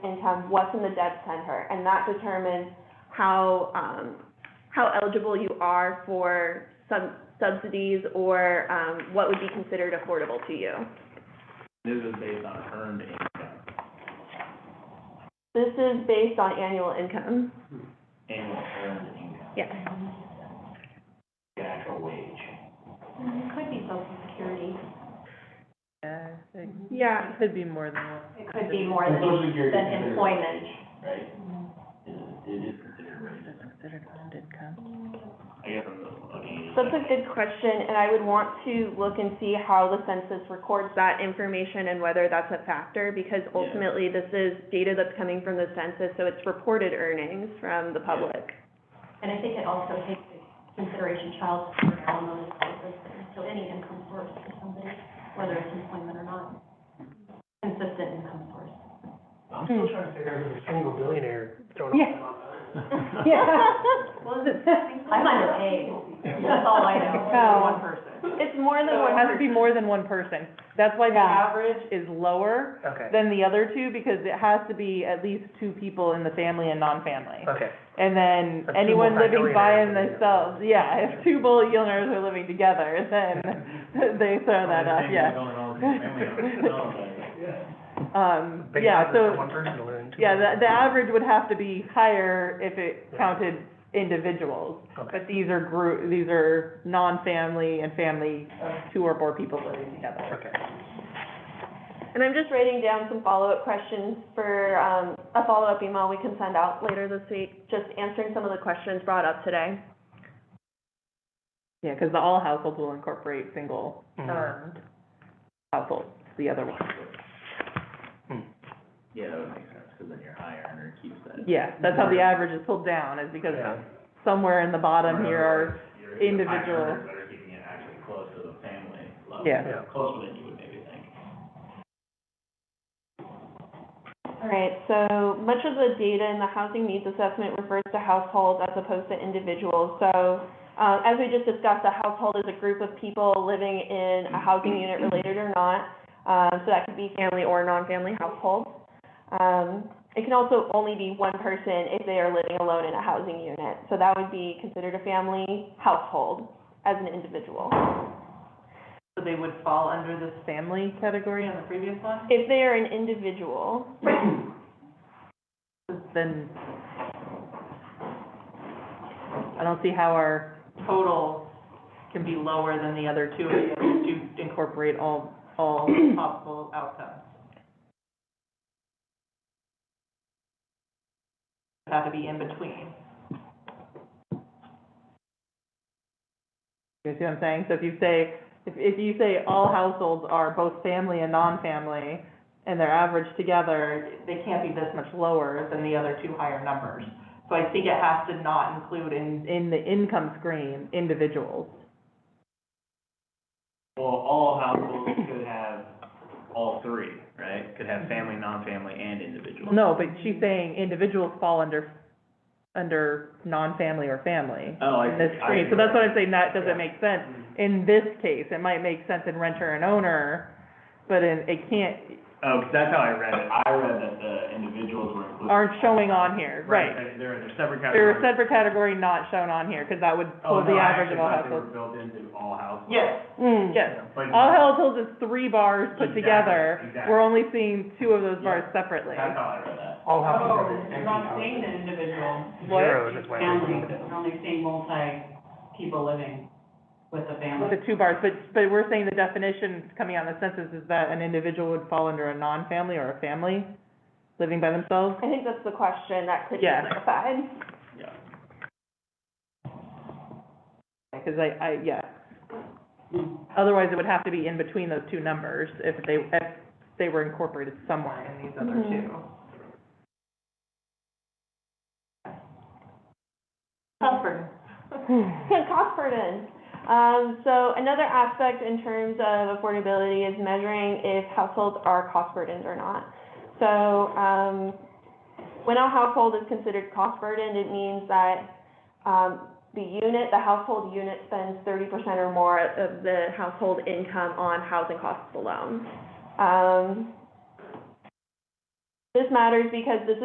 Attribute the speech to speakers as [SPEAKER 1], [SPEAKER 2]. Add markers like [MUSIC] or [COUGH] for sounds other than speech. [SPEAKER 1] income, what's in the debt center, and that determines how, um, how eligible you are for some subsidies or, um, what would be considered affordable to you.
[SPEAKER 2] This is based on earned income,
[SPEAKER 1] This is based on annual income.
[SPEAKER 2] annual earned income,
[SPEAKER 1] Yes.
[SPEAKER 3] Um,
[SPEAKER 2] the actual wage.
[SPEAKER 3] It could be social security.
[SPEAKER 4] Yeah, I think
[SPEAKER 1] Yeah.
[SPEAKER 4] it could be more than one.
[SPEAKER 3] It could be more
[SPEAKER 2] Well,
[SPEAKER 3] than,
[SPEAKER 2] Social Security
[SPEAKER 3] than
[SPEAKER 2] is considered
[SPEAKER 3] employment.
[SPEAKER 2] wage, Right? It is-
[SPEAKER 4] Mm-hmm.
[SPEAKER 2] It is considered wage.
[SPEAKER 4] Is considered earned income.
[SPEAKER 2] I guess I'm looking.
[SPEAKER 1] That's a good question, and I would want to look and see how the census records that information and whether that's a factor, because
[SPEAKER 2] Yeah.
[SPEAKER 1] ultimately, this is data that's coming from the census, so it's reported earnings from the public.
[SPEAKER 3] And I think it also takes into consideration child support, alimony, those things. So any income source for somebody, whether it's employment or not. Consistent income source.
[SPEAKER 5] I'm still trying to figure out if there's a single billionaire throwing
[SPEAKER 4] Yeah.
[SPEAKER 5] a lot
[SPEAKER 3] [LAUGHS] I'm underpaid. That's all I know.
[SPEAKER 4] No.
[SPEAKER 3] One person.
[SPEAKER 1] It's more than
[SPEAKER 4] So it has to
[SPEAKER 1] one,
[SPEAKER 4] be more than one person. That's why the average is lower
[SPEAKER 5] Okay,
[SPEAKER 4] than the other two, because it has to be at least two people in the family and non-family.
[SPEAKER 5] okay.
[SPEAKER 4] And then
[SPEAKER 5] That's two
[SPEAKER 4] anyone living by
[SPEAKER 5] multi-millionaires.
[SPEAKER 4] themselves, yeah, if two billionaires are living together, then [LAUGHS] they throw that up, yeah. Um,
[SPEAKER 5] Big
[SPEAKER 4] yeah,
[SPEAKER 5] odds
[SPEAKER 4] so.
[SPEAKER 5] for one person to learn.
[SPEAKER 4] Yeah, the, the average would have to be higher if it counted individuals.
[SPEAKER 5] Okay.
[SPEAKER 4] But these are group, these are non-family and family of two or more people living together.
[SPEAKER 5] Okay.
[SPEAKER 1] and I'm just writing down some follow-up questions for, um, a follow-up email we can send out later this week, just answering some of the questions brought up today.
[SPEAKER 4] Yeah, because the all households will incorporate single
[SPEAKER 5] Mhm.
[SPEAKER 4] earned households, the other one.
[SPEAKER 2] Yeah, that would make sense, because then your high earner keeps that.
[SPEAKER 4] Yeah, that's how the average is pulled down, is because
[SPEAKER 5] Yeah.
[SPEAKER 4] somewhere in the bottom here are,
[SPEAKER 2] Your- your high
[SPEAKER 4] individual-
[SPEAKER 2] earners That are keeping it actually close to the family level.
[SPEAKER 4] Yeah.
[SPEAKER 5] Yeah.
[SPEAKER 2] Closer than you would maybe think.
[SPEAKER 1] All right, so much of the data in the housing needs assessment refers to households as opposed to individuals. So, uh, as we just discussed, a household is a group of people living in a housing unit related or not. Uh, so that could be family or non-family households. Um, it can also only be one person if they are living alone in a housing unit. So that would be considered a family household as an individual.
[SPEAKER 4] so they would fall under this family category on the previous one?
[SPEAKER 1] If they are an individual,
[SPEAKER 4] Then, I don't see how our total can be lower than the other two, if you incorporate all, all possible outcomes. It had to be in between. You see what I'm saying? So if you say, if, if you say all households are both family and non-family, and they're averaged together, they can't be this much lower than the other two higher numbers. So I think it has to not include in, in the income screen, individuals.
[SPEAKER 2] Well, all households could have all three, right? Could have family, non-family, and individual.
[SPEAKER 4] No, but she's saying individuals fall under, under non-family or family.
[SPEAKER 2] Oh, I
[SPEAKER 4] In this
[SPEAKER 2] see. I Mm-hmm.
[SPEAKER 4] screen, so
[SPEAKER 2] see.
[SPEAKER 4] that's what I'm saying, that doesn't make sense. In this case, it might make sense in renter and owner, but in, it can't,
[SPEAKER 2] Oh, 'cause that's how I read it. I read that the individuals were included.
[SPEAKER 4] aren't showing on here, right.
[SPEAKER 2] They're, they're they're separate
[SPEAKER 4] They're
[SPEAKER 2] categories.
[SPEAKER 4] a separate category not shown on here, because that would
[SPEAKER 2] Oh,
[SPEAKER 4] pull the
[SPEAKER 2] no, I Mm.
[SPEAKER 4] average
[SPEAKER 2] actually
[SPEAKER 4] of all
[SPEAKER 2] thought they were
[SPEAKER 4] households.
[SPEAKER 2] built into all households.
[SPEAKER 4] Yes. yes.
[SPEAKER 2] But
[SPEAKER 4] All households is three bars put
[SPEAKER 2] Exactly,
[SPEAKER 4] together.
[SPEAKER 2] exactly.
[SPEAKER 4] We're only seeing two of those bars separately.
[SPEAKER 2] That's how I read that.
[SPEAKER 5] All houses
[SPEAKER 6] Oh,
[SPEAKER 5] are empty
[SPEAKER 6] you're not saying
[SPEAKER 5] houses.
[SPEAKER 6] the individual.
[SPEAKER 4] What?
[SPEAKER 5] Zeros, that's why I
[SPEAKER 6] Family,
[SPEAKER 5] removed it.
[SPEAKER 6] you're only saying multi people living with a
[SPEAKER 4] With
[SPEAKER 6] family.
[SPEAKER 4] the two bars, but, but we're saying the definition coming out of the census is that an individual would fall under a non-family or a family living by themselves?
[SPEAKER 1] I think that's the question that could be
[SPEAKER 4] Yeah.
[SPEAKER 1] clarified.
[SPEAKER 2] Yeah.
[SPEAKER 4] Because I, I, yeah,
[SPEAKER 6] Mm.
[SPEAKER 4] otherwise it would have to be in between those two numbers if they, if they were incorporated somewhere in these other
[SPEAKER 1] Mhm.
[SPEAKER 4] two.
[SPEAKER 3] Comfort.
[SPEAKER 1] [LAUGHS] cost burden. Um, so another aspect in terms of affordability is measuring if households are cost burdened or not. So, um, when a household is considered cost burdened, it means that, um, the unit, the household unit spends thirty percent or more of the household income on housing costs alone. Um, This matters because this